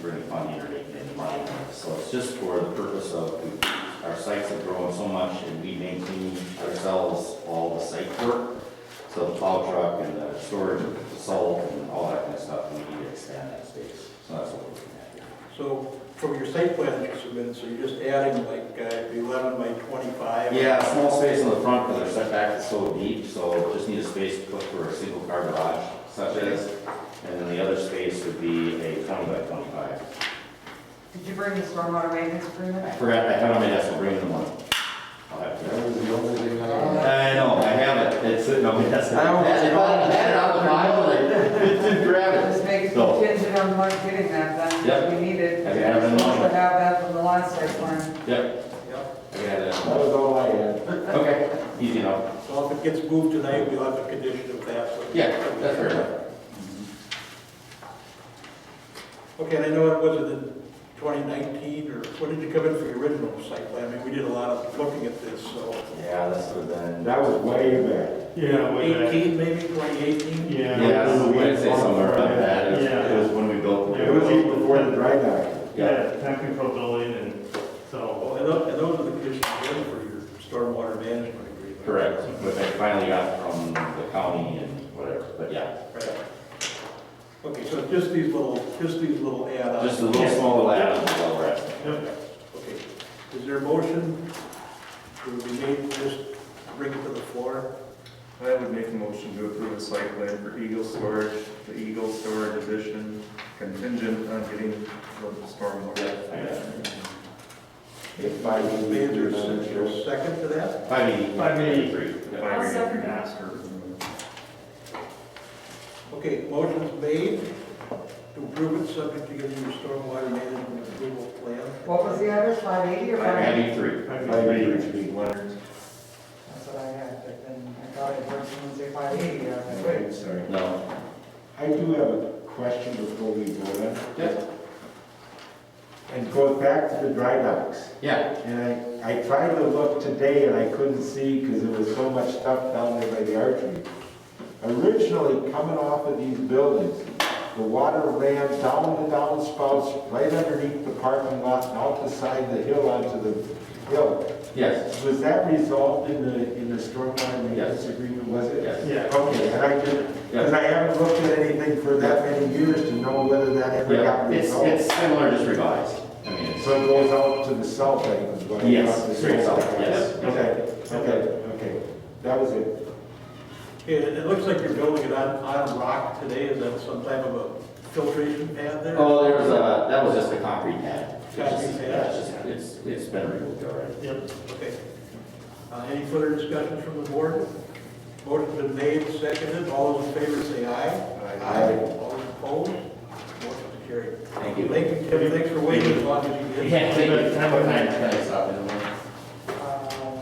for any funding or anything in mind. So it's just for the purpose of, our sites have grown so much and we maintain ourselves all the site work. So the plow truck and the storage of the salt and all that kind of stuff, we need to expand that space. So that's what we're looking at here. So from your site plan that you submitted, so you're just adding like uh, 11 by 25? Yeah, small space on the front because our setback is so deep, so just need a space to put for a single car garage such as. And then the other space would be a twenty by twenty-five. Did you bring the stormwater maintenance I agreement? forgot, I found my desk, I'll bring them one. I'll have to. That was the only thing I had. I know, I have it, it's sitting on my desk. I don't- That's all- that's all the file, like, didn't grab it. This makes So- contingent on Mark getting that, that's what we needed. Have you had it in the We morning? should have that from the last site plan. Yep, Yep. I got it. That was all I had. Okay, easy enough. So if it gets moved tonight, we'll have a condition of that. so- Yeah, that's fair enough. Mm-hmm. Okay, and I know it wasn't in 2019, or when did you come in for your original site plan? I mean, we did a lot of looking at this, so Yeah, this would have been, That was way back. Yeah, way back. 18, maybe 2018? Yeah. yeah, I was gonna say somewhere about that, it was- Yeah. it was when we built. the- It was even before the dry dock. Yeah, Yeah, technical building and Well, so, Oh, And tho- and those are the conditions you had for your stormwater management agreement. correct, which I finally got from the county and whatever, but yeah. Right. Okay, so just these little, just these little add-ons. Just a little smaller add-on is all we're asking. Okay, is there a motion to be made to just bring it to the floor? I would make a motion to approve a site plan for Eagle Storage, the Eagle Storage Edition contingent on getting the stormwater. If I Is can there- major is there a central. second to that? Five eighty. Five eighty. Yeah. I'll second that. Master. Okay, motion's made to approve it, subject to giving your stormwater management approval plan. What was the other, 580 or Five 580? eighty-three. I I mean, major speed. Leonard. That's what I had, but then I thought it was someone say 580, I was like, wait. Wait, sorry. No. I do have a question before we vote on. it. Yep. And goes back to the dry docks. Yeah. And I, I tried to look today and I couldn't see because there was so much stuff down there by the archery. Originally, coming off of these buildings, the water ran down the downspouts, right underneath the parking lot, and out the side of the hill onto the hill. Yes. Was that resolved in the, in the stormwater maintenance agreement, was it? Yes. Yeah. Okay, and I did, because I haven't looked at anything for that many years to know whether that ever Yeah, got it's, resolved. it's similar, just revised. I mean, it's, So it goes out to the south end as well? Yes, Not the straight south, yes. Okay, okay, okay. That was it. Okay, and it looks like you're building it on, on rock today, is that some type of a filtration pad there? oh, there was a, that was just a concrete pad. It's just- Concrete pad. yeah, it's just- It's, it's been removed already. Yep, Okay. Uh, Any further discussion from the board? Motion's been made, seconded, all those in favor say aye. Aye. All those opposed, motion's carried. Thank you. Thank you, Kevin, thanks for waiting as long as you did. Yeah, thank you. Have a nice Thanks, stop in the morning. Uh,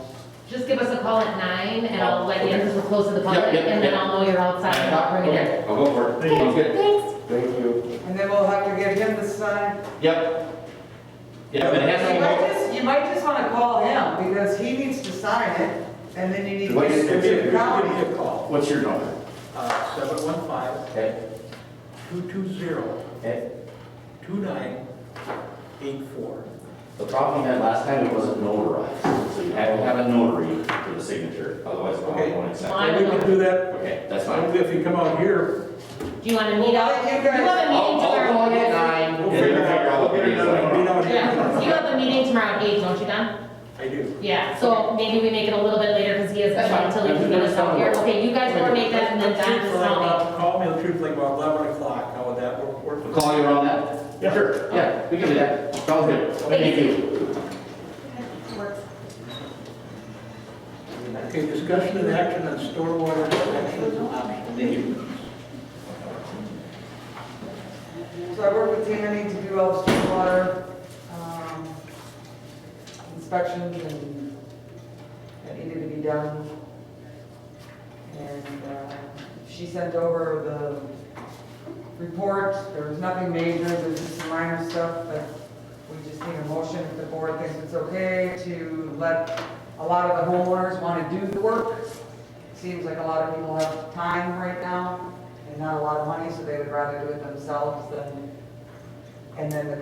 Just give us a call at nine and I'll let you, because we're close to the public, Yep, yep, and then yep. I'll know you're outside and I'll bring it in. Okay, I'll Oh, go for it. Thank you. Sounds good. Thanks. Thank you. And then we'll have to get him to sign. Yep. Yeah, but it has to You might go. just, you might just want to call him, because he needs to sign it, and then you need to What get is- it Give me to a- the give county. me a call, What's your number? uh, seven one five, Okay. two two zero, Okay. two nine eight four. The problem we had last time, it wasn't notarized, so you had to have a notary for the signature, otherwise it Okay. won't accept. Fine. it. We can do that, Okay, that's fine. Only if you come out here, Do you want to meet up? Well, you guys- You have a meeting I'll, I'll call you at tomorrow. nine. and we'll then figure it figure out out. what it is like. Meet out Yeah, here. you have a meeting tomorrow at eight, don't you, Don? I do. Yeah, so maybe we make it a little bit later because he has That's to fine. until he can get us out here. Okay, you guys coordinate that and then Let's shoot Don for will like call me. about- Call me, the truth, like about eleven o'clock, how would that work? work? We'll Call you around that? Yeah. Sure, yeah, we can do that. Sounds good. Thank you. Okay, discussion and action on stormwater protection on neighbors. So I work with Tiffany to do all the stormwater um, inspections and that needed to be done. And uh, she sent over the report, there was nothing major, there's just some minor stuff, but we just need a motion if the board thinks it's okay to let, a lot of the homeowners want to do the work. Seems like a lot of people have time right now and not a lot of money, so they would rather do it themselves than and then the